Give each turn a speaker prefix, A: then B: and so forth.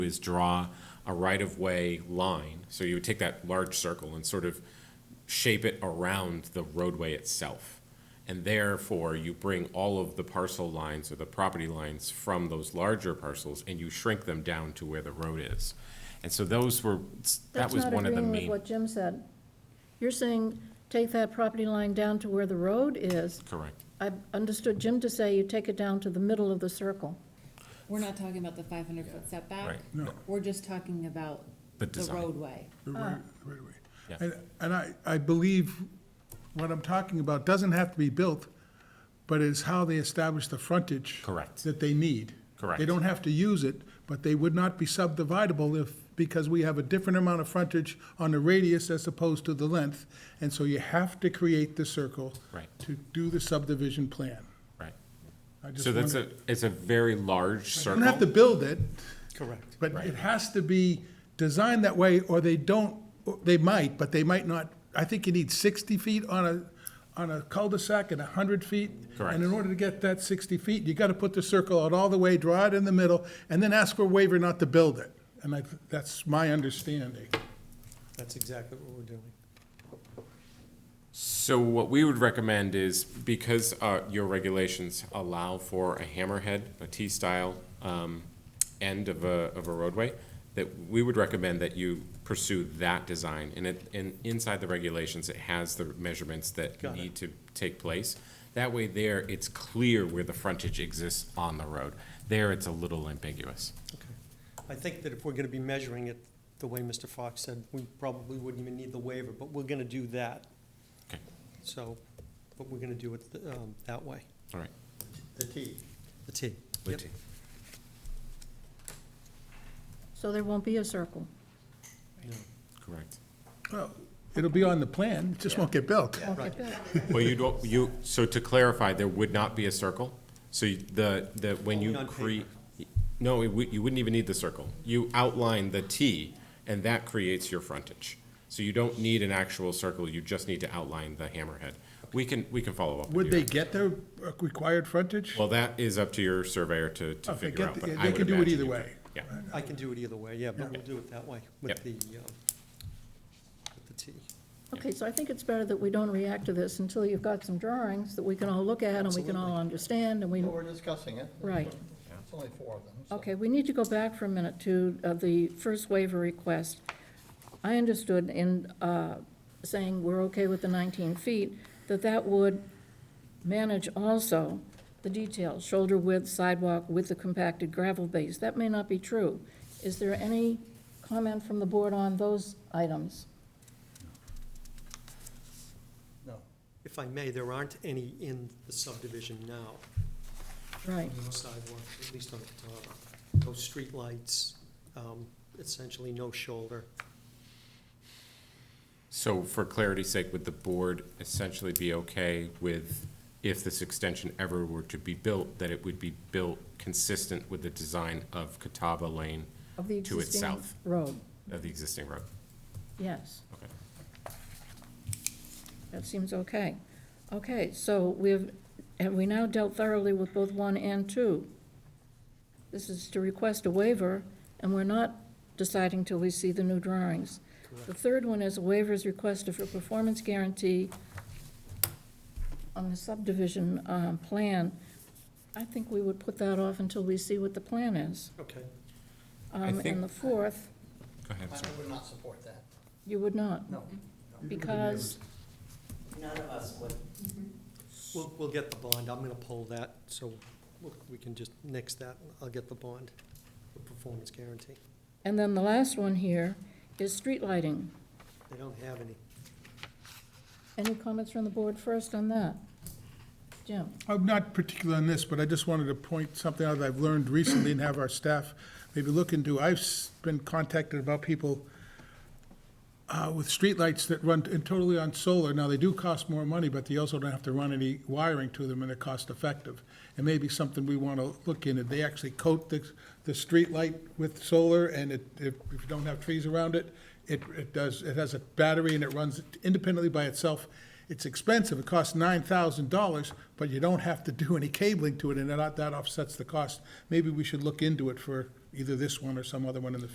A: is draw a right-of-way line. So you would take that large circle and sort of shape it around the roadway itself. And therefore, you bring all of the parcel lines or the property lines from those larger parcels and you shrink them down to where the road is. And so those were, that
B: That's
A: was
B: not
A: one of the
B: agreeing with
A: main,
B: what Jim said. You're saying, take that property line down to where the road is.
A: correct.
B: I understood Jim to say you take it down to the middle of the circle.
C: We're not talking about the five hundred foot setback.
A: Right. No.
C: We're just talking about
A: The
C: the
A: design.
C: roadway.
D: The right, right away.
A: Yeah.
D: And, and I, I believe what I'm talking about doesn't have to be built, but is how they establish the frontage.
A: Correct.
D: That they need.
A: Correct.
D: They don't have to use it, but they would not be subdividable if, because we have a different amount of frontage on the radius as opposed to the length. And so you have to create the circle.
A: Right.
D: To do the subdivision plan.
A: Right.
D: I just
A: So that's
D: wondered-
A: a, it's a very large
D: You don't have to
A: circle.
D: build it.
E: Correct.
D: But it has to be designed that way, or they don't, or they might, but they might not. I think you need 60 feet on a, on a cul-de-sac and 100 feet.
A: Correct.
D: And in order to get that 60 feet, you got to put the circle out all the way, draw it in the middle, and then ask for a waiver not to build it. And I, that's my understanding.
E: That's exactly what we're doing.
A: So what we would recommend is, because uh, your regulations allow for a hammerhead, a T-style um, end of a, of a roadway, that we would recommend that you pursue that design. And it, and inside the regulations, it has the measurements that
E: Got it.
A: need to take place. That way there, it's clear where the frontage exists on the road. There, it's a little ambiguous.
E: Okay. I think that if we're gonna be measuring it the way Mr. Fox said, we probably wouldn't even need the waiver, but we're gonna do that.
A: Okay,
E: So, but we're gonna do it um, that way,
A: all right.
D: The T.
E: the T. Yep.
A: Lit-
B: So there won't be a circle.
A: Correct.
D: Well, it'll be on the plan, it just won't get built.
B: Okay, good.
A: Well, you don't, you, so to clarify, there would not be a circle? So you- the, the, when
E: Only
A: you
E: on
A: create, no, it would- you wouldn't even need the circle. You outline the T, and that creates your frontage. So you don't need an actual circle, you just need to outline the hammerhead. We can, we can follow up with
D: Would
A: you.
D: they get their required frontage?
A: Well, that is up to your surveyor to, to
D: If they
A: figure
D: get
A: out,
D: the-
A: but I would
D: They can do it
A: imagine
D: either
A: you
D: way.
A: could. Yeah,
E: I can do it either way, yeah, but we'll do it that way with
A: Yep.
E: the, um, with the T.
B: Okay, so I think it's better that we don't react to this until you've got some drawings that we can all look at and we can all understand and we,
F: Well, we're discussing it.
B: right.
F: It's only four of them. so-
B: Okay, we need to go back for a minute to uh, the first waiver request. I understood in uh, saying we're okay with the 19 feet, that that would manage also the details, shoulder width, sidewalk with the compacted gravel base. That may not be true. Is there any comment from the board on those items?
F: No.
E: If I may, there aren't any in the subdivision now,
B: Right,
E: no sidewalk, at least on Catawba. No streetlights, um, essentially no shoulder.
A: so for clarity's sake, would the board essentially be okay with, if this extension ever were to be built, that it would be built consistent with the design of Catawba Lane
B: of the
A: To its
B: existing
A: south.
B: road,
A: of the existing road?
B: yes.
A: Okay.
B: That seems okay. Okay, so we've, have we now dealt thoroughly with both one and two? This is to request a waiver, and we're not deciding till we see the new drawings. The third one is a waiver is requested for performance guarantee on the subdivision um, plan. I think we would put that off until we see what the plan is.
E: Okay.
A: I
B: Um,
A: think-
B: And the fourth,
A: Go ahead,
F: I
A: sir.
F: I would not support that.
B: you would not,
F: No.
B: because
G: None of us would.
E: We'll, we'll get the bond, I'm gonna pull that, so we'll- we can just nix that, I'll get the bond, the performance guarantee.
B: And then the last one here is street lighting.
E: They don't have any.
B: Any comments from the board first on that? Jim?
D: I'm Oh, not particular on this, but I just wanted to point something out that I've learned recently and have our staff maybe look into. I've s- been contacted about people uh, with streetlights that run t- totally on solar. Now, they do cost more money, but they also don't have to run any wiring to them, and they're cost-effective. And maybe something we want to look into. They actually coat the, the streetlight with solar, and it, if if you don't have trees around it, it, it does, it has a battery and it runs independently by itself. It's expensive, it costs nine thousand dollars, but you don't have to do any cabling to it, and that that offsets the cost. Maybe we should look into it for either this one or some other one in the